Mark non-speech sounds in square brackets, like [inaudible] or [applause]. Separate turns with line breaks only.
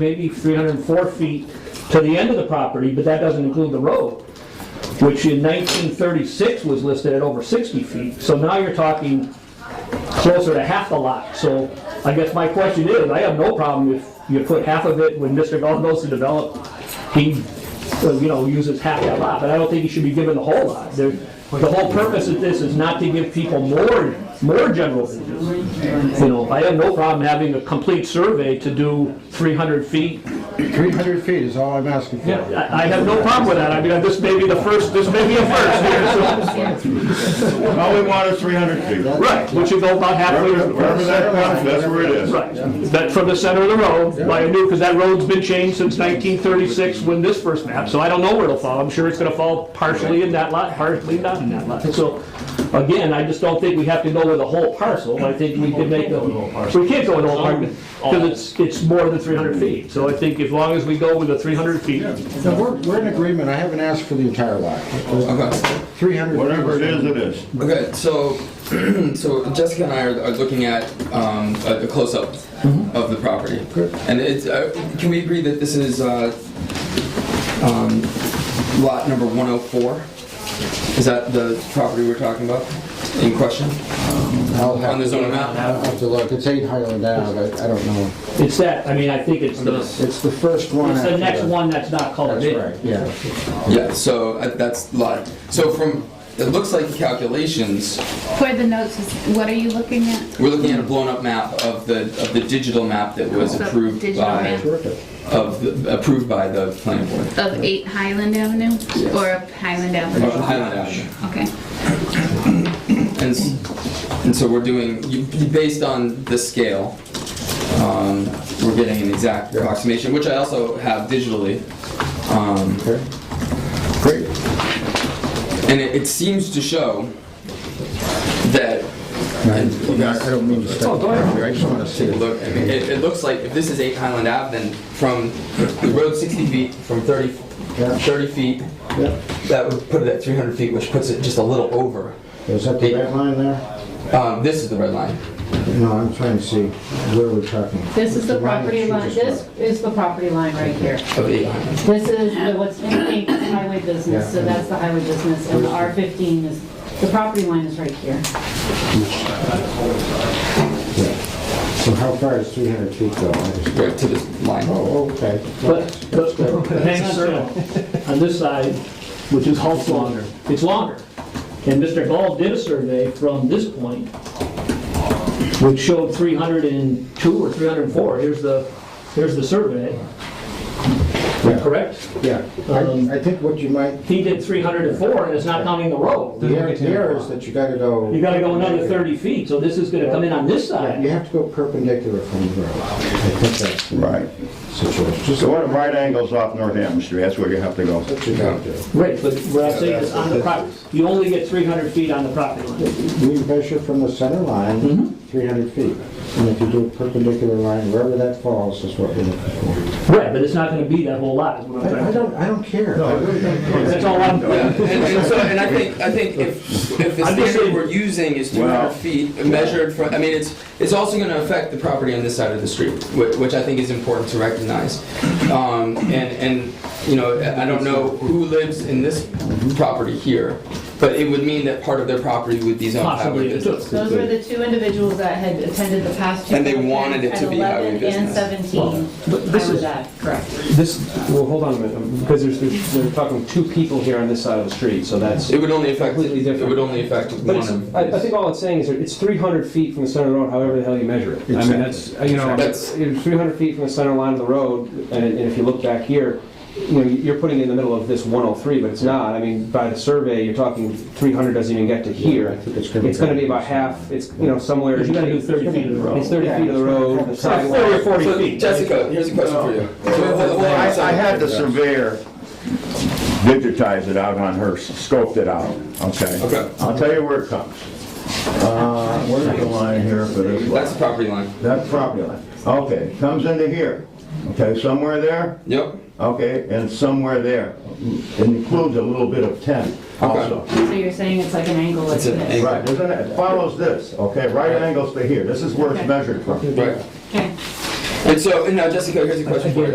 maybe 304 feet to the end of the property, but that doesn't include the road, which in 1936 was listed at over 60 feet. So now you're talking closer to half the lot. So I guess my question is, I have no problem if you put half of it when Mr. Gall goes to develop, he, uh, you know, uses half that lot, but I don't think he should be given the whole lot. There- The whole purpose of this is not to give people more, more general business. You know, I have no problem having a complete survey to do 300 feet.
300 feet is all I'm asking for.
I I have no problem with that. I mean, this may be the first, this may be a first here, so.
All we want is 300 feet.
Right, which is about halfway.
Wherever wherever that comes, that's where it is.
Right, that from the center of the road, by a new, because that road's been changed since 1936 when this first map, so I don't know where it'll fall. I'm sure it's gonna fall partially in that lot, partially not in that lot. So, again, I just don't think we have to go with a whole parcel, I think we can make a, we can't go with a whole parcel, because it's, it's more than 300 feet. So I think as long as we go with the 300 feet,
No, we're, we're in agreement, I haven't asked for the entire lot.
Okay,
300. feet
Whatever it is, it is.
okay, so, [clears throat] so Jessica and I are, are looking at, um, a, a close-up of the property.
Good.
And it's, uh, can we agree that this is, uh, um, lot number one oh four? Is that the property we're talking about in question?
I'll have-
On the zoning map?
I'll have to look, it's 8 Highland Ave, I I don't know.
it's that, I mean, I think it's the, it's
It's the first one.
the
after
next one that's not colored
That's
in.
right, yeah.
Yeah, so uh, that's lot, so from, it looks like the calculations,
Where the notes is, what are you looking at?
we're looking at a blown-up map of the, of the digital map that was
The
approved
digital
by,
map.
Terrific.
of, the- approved by the planning board.
Of 8 Highland Avenue or of Highland
Of
Avenue?
Highland Avenue.
Okay.
And, s- and so we're doing, you- you- based on the scale, um, we're getting an exact approximation, which I also have digitally. Um,
Okay. Great.
And it, it seems to show that, and you
I
guys
I don't mean to
Oh,
step on you, I just want to see
take a
it.
look, I mean, it, it looks like if this is 8 Highland Ave, then from the road 60 feet, from 30,
Yeah.
30 feet,
Yeah.
that would put it at 300 feet, which puts it just a little over.
Is that the red line there?
Um, This is the red line.
No, I'm trying to see where we're talking.
This is the
line
property
that
line,
she
this
just
is the property line right here.
of the island.
This is the- what's in pink is highway business, so that's the highway business, and the R15 is, the property line is right here.
wrote. So how far is 300 feet though? I just-
Right to this line.
Oh, okay.
But, but hang on, sir. on this side, which is Hulk's longer, it's longer. And Mr. Gall did a survey from this point, which showed 302 or 304. Here's the, here's the survey,
Yeah.
correct?
Yeah,
Um,
I, I think what you might,
He did 304, and it's not counting the road.
the error here is that you gotta go.
You gotta go another 30 feet, so this is gonna come in on this
Yeah, You
side.
have to go perpendicular from the road. I think that's the
Right.
situation. Just
So what are right angles off North Adams Street? That's where you have to go.
what you gotta do.
Right, but what I'm saying is on the property, you only get 300 feet on the property line.
We measure from the center line,
Mm-hmm.
300 feet. And if you do a perpendicular line, wherever that falls is what we're looking for.
Right, but it's not gonna be that whole lot, is what I'm trying to
I I don't, I don't care. I really don't care.
That's all I'm,
Yeah, and, and so, and I think, I think if, if the
I'm just
standard
saying-
we're using is two
Wow.
hundred feet measured from, I mean, it's, it's also gonna affect the property on this side of the street, which, which I think is important to recognize. Um, and, and, you know, I I don't know who lives in this property here, but it would mean that part of their property would be zoned highway
possibly, it took.
business.
Those were the two individuals that had attended the past two.
And they wanted it to be highway business.
And 11 and 17,
this
highway
is-
that, correct.
This, well, hold on a minute, um, because there's, there's, we're talking two people here on this side of the street, so that's.
It would only affect,
Completely
it
different.
would only affect one
But it's,
of.
I, I
these.
think all it's saying is that it's three hundred feet from the center of the road, however the hell you measure it. I mean, that's, you know,
That's-
three hundred feet from the center line of the road, and, and if you look back here, you know, you're putting it in the middle of this one oh three, but it's not. I mean, by the survey, you're talking three hundred doesn't even get to
I
here.
think it's gonna be
It's gonna be
better.
about half, it's, you know, somewhere.
But you gotta do 30 feet of the road.
It's thirty feet of the road, the sidewalk.
30 or 40
So
feet.
Jessica, here's a question for you.
I I had the surveyor digitize it out on her, scoped it out, okay?
Okay.
I'll tell you where it comes. Uh, Where's the line here for this lot?
That's the property line.
That's property line. Okay, comes into here. Okay, somewhere there,
Yep,
okay, and somewhere there. It includes a little bit of 10 also.
So you're saying it's like an angle like
It's an
this?
angle.
Right, isn't it? It follows this, okay, right angles to here. This is where it's measured from.
right.
Okay.
And so, and now Jessica, here's a question for you.